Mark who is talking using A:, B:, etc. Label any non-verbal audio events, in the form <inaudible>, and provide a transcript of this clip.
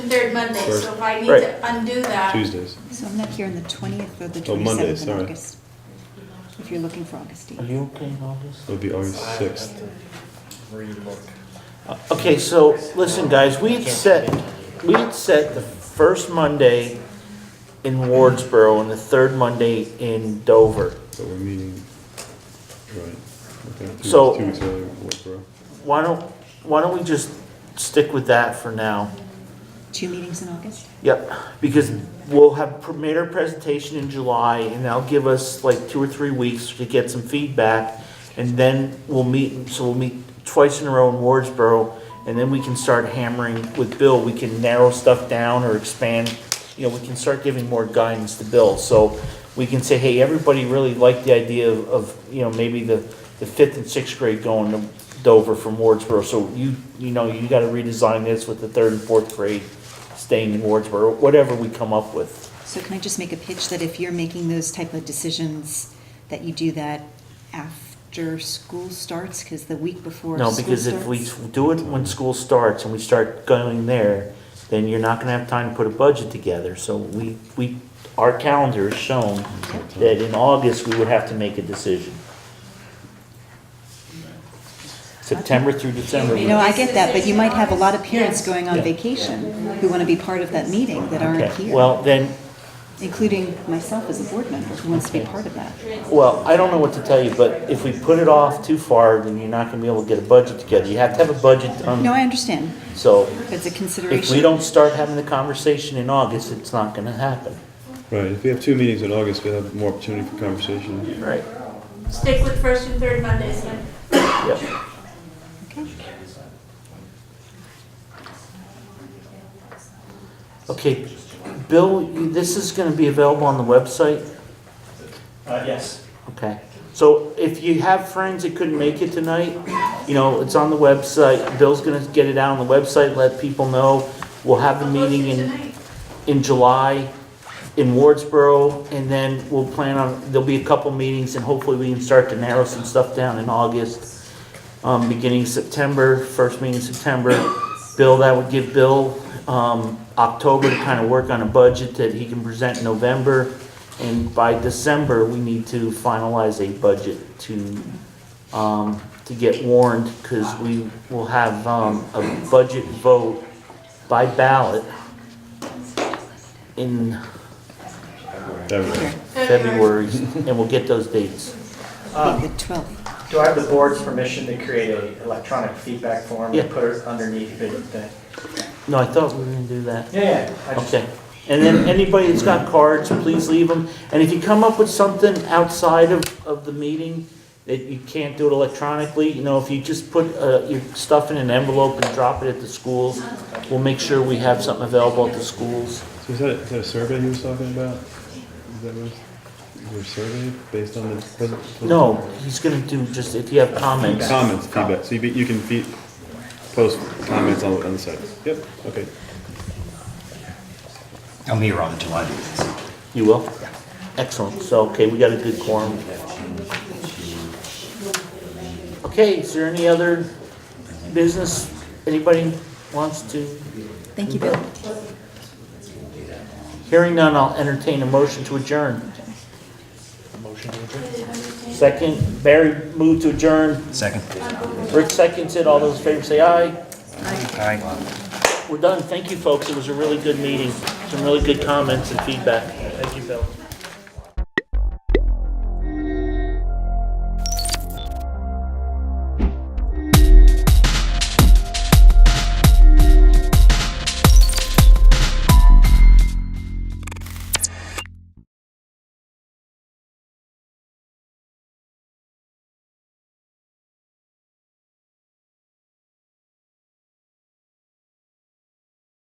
A: third Monday, so if I need
B: Right.
A: to undo that,
B: Tuesdays.
C: So I'm not here on the 20th or the
B: Oh, Monday,
C: 27th of
B: sorry.
C: August. If you're looking for August
D: Are
C: 8th.
D: you okay in August?
B: It'll be August sixth.
D: Uh, Okay, so, listen, guys, we had set, we had set the first Monday in Wardsboro and the third Monday in Dover.
B: So we're meeting, right. Okay, two-
D: So-
B: Two weeks earlier, Westboro.
D: Why don't, why don't we just stick with that for now?
C: Two meetings in August?
D: Yep, because we'll have pr- made our presentation in July, and that'll give us like two or three weeks to get some feedback, and then we'll meet, so we'll meet twice in a row in Wardsboro, and then we can start hammering with Bill, we can narrow stuff down or expand, you know, we can start giving more guidance to Bill, so we can say, hey, everybody really liked the idea of, of, you know, maybe the, the fifth and sixth grade going to Dover from Wardsboro, so you, you know, you gotta redesign this with the third and fourth grade staying in Wardsboro, whatever we come up with.
C: So can I just make a pitch that if you're making those type of decisions, that you do that after school starts? Because the week before
D: No,
C: school
D: because if we
C: starts-
D: do it when school starts and we start going there, then you're not gonna have time to put a budget together, so we, we, our calendar has shown that in August, we would have to make a decision. September through December.
C: You
D: we-
C: know, I get that, but you might have a lot of parents
A: Yes.
C: going on
D: Yeah.
C: vacation who want to be part of that meeting that aren't
D: Okay,
C: here,
D: well, then,
C: including myself as a board member who wants to be part of that.
D: Well, I don't know what to tell you, but if we put it off too far, then you're not gonna be able to get a budget together. You have to have a budget
C: No,
D: done,
C: I understand.
D: so
C: It's a
D: if
C: consideration.
D: we don't start having the conversation in August, it's not gonna happen.
B: Right, if we have two meetings in August, we'll have more opportunity for conversation.
D: Right.
A: stick with first and third Mondays then.
D: Yep.
C: Okay.
D: Okay, Bill, you- this is gonna be available on the website?
E: Uh, yes.
D: Okay. So if you have friends that couldn't make it tonight, you know, it's on the website. Bill's gonna get it out on the website, let people know. We'll have the meeting in.
A: Tonight.
D: in July in Wardsboro, and then we'll plan on, there'll be a couple meetings, and hopefully we can start to narrow some stuff down in August, um, beginning September, first meeting in September. Bill, that would give Bill, um, October to kind of work on a budget that he can present in November, and by December, we need to finalize a budget to, um, to get warned, because we will have, um, a budget vote by ballot in
B: That would-
D: February, <laughs> and we'll get those dates.
C: Be
E: Um,
C: The 12th.
E: do I have the board's permission to create a electronic feedback form
D: Yeah.
E: and put it underneath the thing?
D: No, I thought we were gonna do that.
E: Yeah, yeah. I just-
D: Okay. And then anybody that's got cards, please leave them. And if you come up with something outside of, of the meeting that you can't do it electronically, you know, if you just put, uh, your stuff in an envelope and drop it at the schools, we'll make sure we have something available at the schools.
B: So is that, is that a survey he was talking about? Is that what, your survey based on the present?
D: No, he's gonna do just, if you have comments.
B: Comments, feedback, so you, be- you can feed, post comments on, on the site. Yep, okay.
F: I'm here on the July meetings.
D: You will? Excellent, so, okay, we got a good quorum. Okay, is there any other business anybody wants to?
C: Thank you, Bill.
D: Hearing none, I'll entertain a motion to adjourn. Motion to adjourn. Second, Barry moved to adjourn,
F: Second.
D: Rick seconds it, all those in favor say aye.
F: Aye.
D: We're done, thank you, folks, it was a really good meeting, some really good comments and feedback. Thank you, Bill.